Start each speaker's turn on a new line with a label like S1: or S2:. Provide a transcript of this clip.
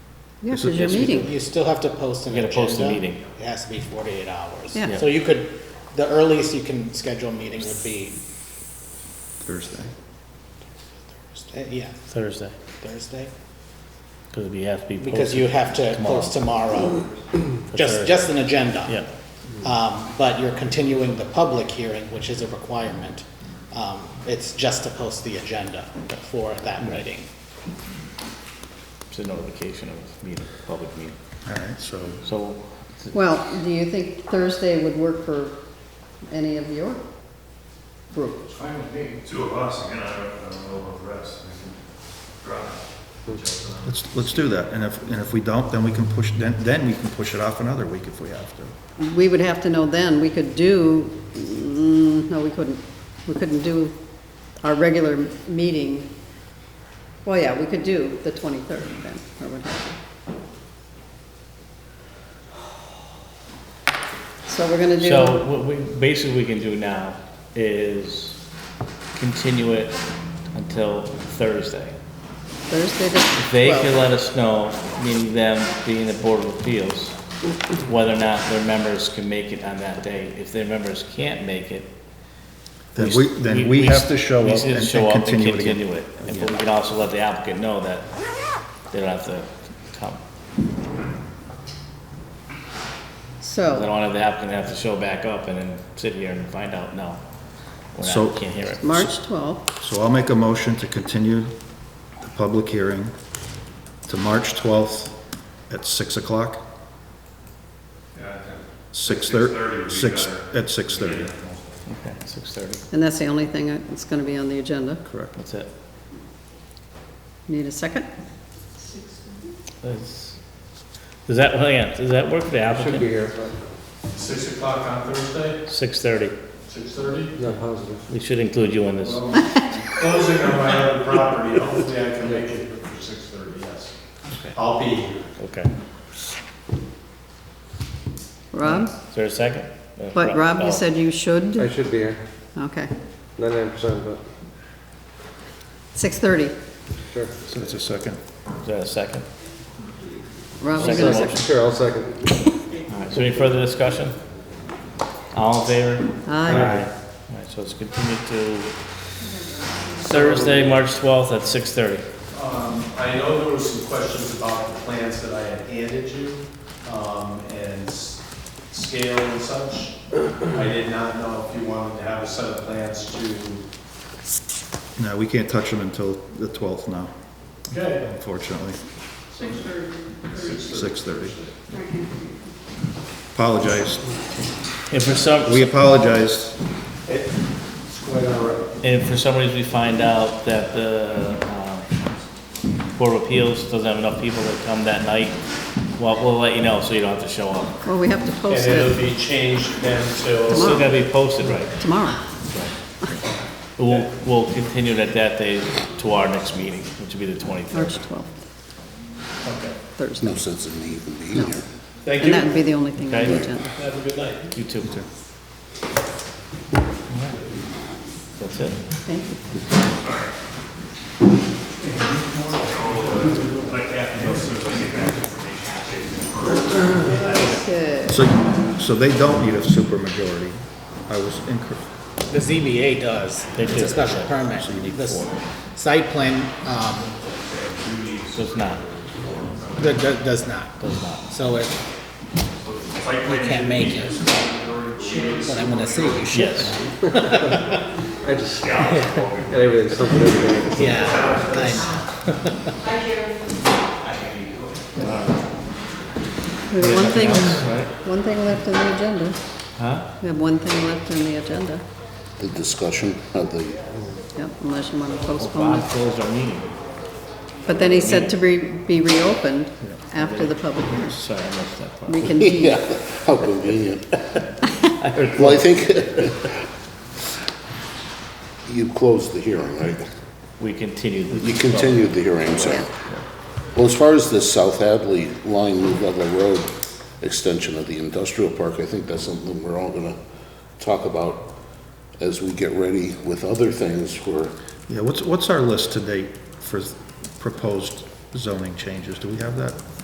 S1: Yes, it's your meeting.
S2: You still have to post an
S3: You gotta post a
S2: agenda.
S3: meeting.
S2: It has to be forty-eight hours.
S1: Yeah. Yeah.
S2: So you could, the earliest you can schedule a meeting would be,
S4: Thursday.
S2: uh, yeah,
S3: Thursday,
S2: Thursday,
S3: because we have to be posted.
S2: because you have to
S3: tomorrow.
S2: post tomorrow,
S3: for
S2: just,
S3: Thursday.
S2: just an agenda.
S3: Yeah,
S2: Um, but you're continuing the public hearing, which is a requirement. Um, it's just to post the agenda for that meeting.
S3: it's a notification of meeting, public meeting.
S4: All right, so
S3: So,
S1: Well, do you think Thursday would work for any of your group?
S5: Fine with me. Two of us, again, I don't, I don't know about the rest, we can drive.
S4: let's, let's do that. And if, and if we don't, then we can push, then, then we can push it off another week if we have to.
S1: We would have to know then, we could do, mm, no, we couldn't, we couldn't do our regular meeting. Well, yeah, we could do the 23rd then, or what have you. So we're gonna do,
S3: so what we, basically we can do now is continue it until Thursday.
S1: Thursday the
S3: They can
S1: 12th.
S3: let us know, meaning them being the Board of Appeals, whether or not their members can make it on that day. If their members can't make it.
S4: Then we, then we have to show
S3: we
S4: up
S3: should
S4: and
S3: show
S4: and continue it again.
S3: continue it. And But we can also let the applicant know that they don't have to come. I don't
S1: So,
S3: want the applicant to have to show back up and then sit here and find out, no, we're
S4: So-
S3: not, can't hear it.
S1: March 12th,
S4: So I'll make a motion to continue the public hearing to March 12th at 6 o'clock?
S5: Yeah, I think 6:30 would
S4: 6:30?
S5: be
S4: 6,
S5: better.
S4: at 6:30,
S3: Okay, six thirty,
S1: and that's the only thing that's gonna be on the agenda.
S4: correct.
S3: that's it.
S1: Need a second?
S3: That's- Does that, hang on, does that work for the
S6: Should
S3: applicant?
S6: be here,
S5: Six o'clock on Thursday,
S3: Six thirty,
S5: six thirty?
S6: not positive.
S3: we should include you in this.
S5: Closing on my other property, hopefully I can make it for six thirty, yes. I'll be here.
S3: Okay.
S1: Rob?
S3: Is there a second? Uh,
S1: But Rob,
S3: no.
S1: you said you should?
S6: I should be here,
S1: Okay,
S6: ninety-nine percent, but
S1: 6:30.
S6: sure.
S4: So it's a second.
S3: Is there a second?
S1: Rob, you
S3: Second
S1: gonna
S3: motion.
S6: Sure, I'll second.
S3: All right, so any further discussion? All in favor?
S1: Aye.
S3: All right, so it's continued to Thursday, March twelfth at six thirty.
S5: Um, I know there were some questions about the plans that I had handed you, um, and s- scale and such. I did not know if you wanted to have a set of plans to.
S4: No, we can't touch them until the 12th now,
S5: Okay.
S4: unfortunately,
S5: Six thirty.
S4: 6:30. Apologize.
S3: If for some,
S4: We apologize.
S5: It's quite all right.
S3: and for some reason we find out that the, um, Board of Appeals doesn't have enough people to come that night, well, we'll let you know, so you don't have to show up.
S1: Well, we have to
S5: And
S1: post
S5: it'll
S1: it
S5: be changed then
S3: It's
S5: to,
S3: still gonna be posted, right?
S1: tomorrow.
S3: We'll, we'll continue that that day to our next meeting, which will be the
S1: March
S3: twenty-third.
S1: 12th,
S5: okay.
S1: Thursday.
S7: sense of me even being here.
S5: Thank
S1: And
S5: you.
S1: that would be the only thing on the
S3: Okay.
S1: agenda.
S5: Have a good night.
S3: You too. That's it.
S1: Thank you. Okay.
S4: So, so they don't need a supermajority. I was incorrect.
S2: The ZBA does.
S3: They
S2: It's
S3: do.
S2: a special permit. The s- site plan, um,
S3: So it's not,
S2: that, that does not.
S3: does not.
S2: So it, you can't make it. But I'm gonna say you should.
S3: Yes,
S6: I just, and everything's something everything.
S2: Yeah, I
S1: We have one thing,
S3: right?
S1: one thing left on the agenda.
S3: huh?
S1: We have one thing left on the agenda.
S7: The discussion of the
S1: Yep, unless you want to postpone
S3: Bob
S1: it.
S3: closed our meeting.
S1: But then he said to be, be reopened after the public hearing.
S3: Sorry, I missed that part.
S1: Reconvene.
S7: Yeah, how convenient. Well, I think you closed the hearing, right?
S3: We continued. the-
S7: You continued the hearing, so. Well, as far as the South Hadley line, New Ludlow Road extension of the industrial park, I think that's something we're all gonna talk about as we get ready with other things for
S4: Yeah, what's, what's our list to date for proposed zoning changes? Do we have that?